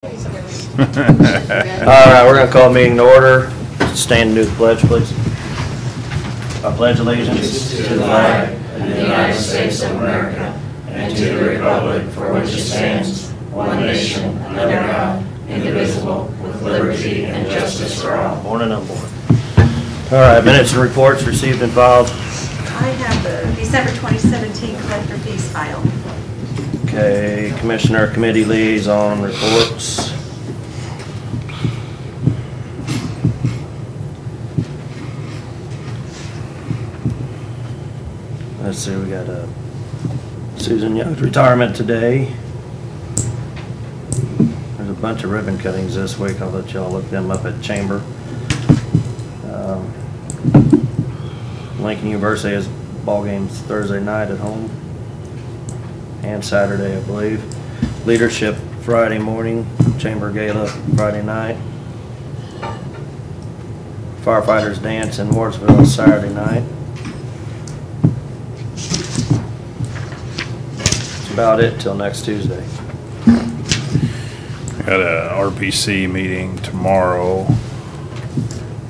All right, we're gonna call meeting to order. Stand and do the pledge, please. I pledge allegiance to the flag of the United States of America and to the republic for which it stands, one nation, under God, indivisible, with liberty and justice for all. Born and unborn. All right, minutes and reports received and filed. I have the December 2017 collector fees file. Okay, Commissioner Committee Liaison reports. Let's see, we got uh, Susan Young's retirement today. There's a bunch of ribbon cuttings this week. I'll let y'all look them up at Chamber. Um, Lincoln University has ball games Thursday night at home and Saturday, I believe. Leadership Friday morning, Chamber Gala Friday night. Firefighters Dance in Wardsville Saturday night. That's about it till next Tuesday. Got a RPC meeting tomorrow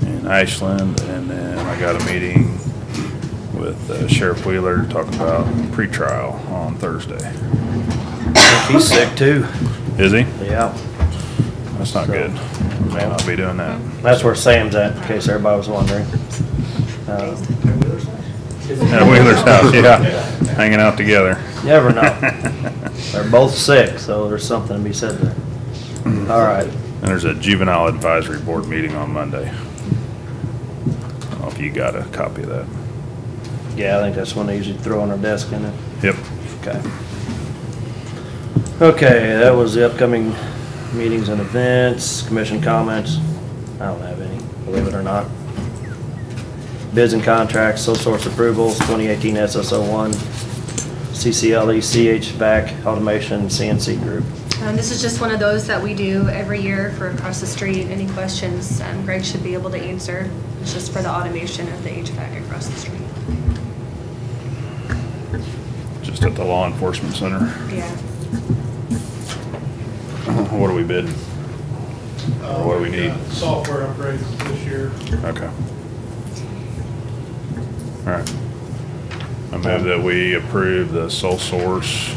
in Ashland, and then I got a meeting with uh, Sheriff Wheeler talking about pretrial on Thursday. He's sick too. Is he? Yeah, That's not good. May not be doing that. that's where Sam's at, in case everybody was wondering. Uh, At Wheeler's house, yeah, hanging out together. Never know. They're both sick, so there's something to be said there. All right. And there's a juvenile advisory board meeting on Monday. I don't know if you got a copy of that. Yeah, I think that's when they usually throw on our desk, isn't it? Yep. Okay. Okay, that was the upcoming meetings and events, commission comments. I don't have any, believe it or not. Bids and contracts, sole source approvals, 2018 SSO1, CCLE, CHVAC, automation, CNC group. Um, This is just one of those that we do every year for across the street. Any questions um, Greg should be able to answer. It's just for the automation of the HVAC across the street. Just at the law enforcement center. Yeah. What do we bid? Uh, What do we need? got Software upgrades this year. Okay. All right. I move that we approve the sole source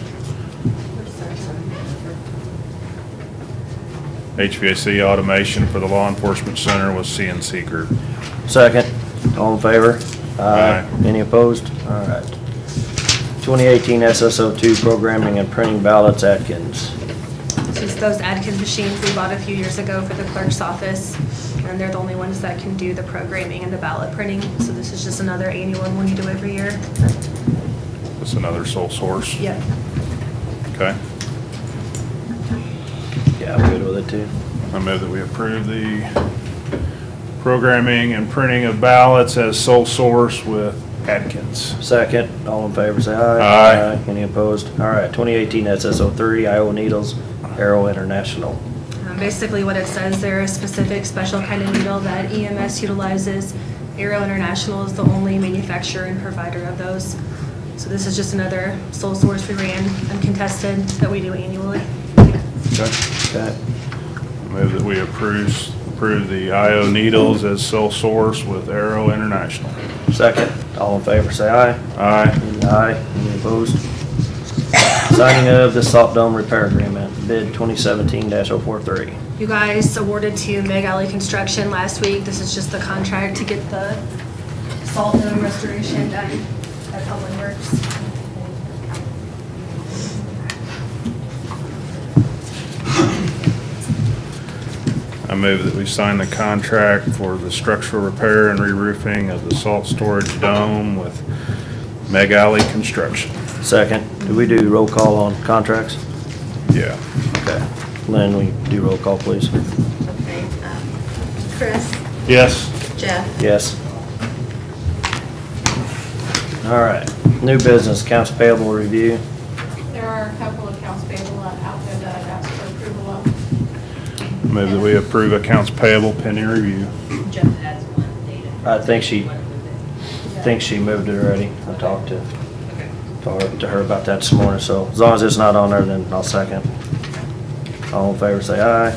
HVAC automation for the law enforcement center with CNC Group. Second, all in favor? Aye. Any opposed? All right. 2018 SSO2 programming and printing ballots, Atkins. Just those Adkins machines we bought a few years ago for the clerk's office. And they're the only ones that can do the programming and the ballot printing. So this is just another annual one we do every year. That's another sole source. Yep. Okay. Yeah, I'm good with it too. I move that we approve the programming and printing of ballots as sole source with Atkins. Second, all in favor, say aye. Aye. Any opposed? All right, 2018 SSO3, Iowa Needles, Arrow International. Um, Basically, what it says, they're a specific, special kind of needle that EMS utilizes. Aero International is the only manufacturer and provider of those. So this is just another sole source we ran uncontested that we do annually. Okay. Okay, I Move that we approve, approve the IO Needles as sole source with Arrow International. second, all in favor, say aye. Aye. Any Aye, any opposed? Signing of the Salt Dome Repair Agreement, bid 2017-043. You guys awarded to Meg Alley Construction last week. This is just the contract to get the salt dome restoration done at Public Works. I move that we sign the contract for the structural repair and re-roofing of the salt storage dome with Meg Alley Construction. Second, do we do roll call on contracts? Yeah. Okay. Lynn, we do roll call, please? Okay. um, Chris, Yes. Jeff, Yes. All right, new business, accounts payable review. There are a couple of accounts payable out there that I've asked for approval of. Move that we approve accounts payable pending review. Jeff has one data. I think she- I Yeah. think she moved it already. I talked to, talked to her about that this morning, so as long as it's not on there, then I'll second. All in favor, say aye.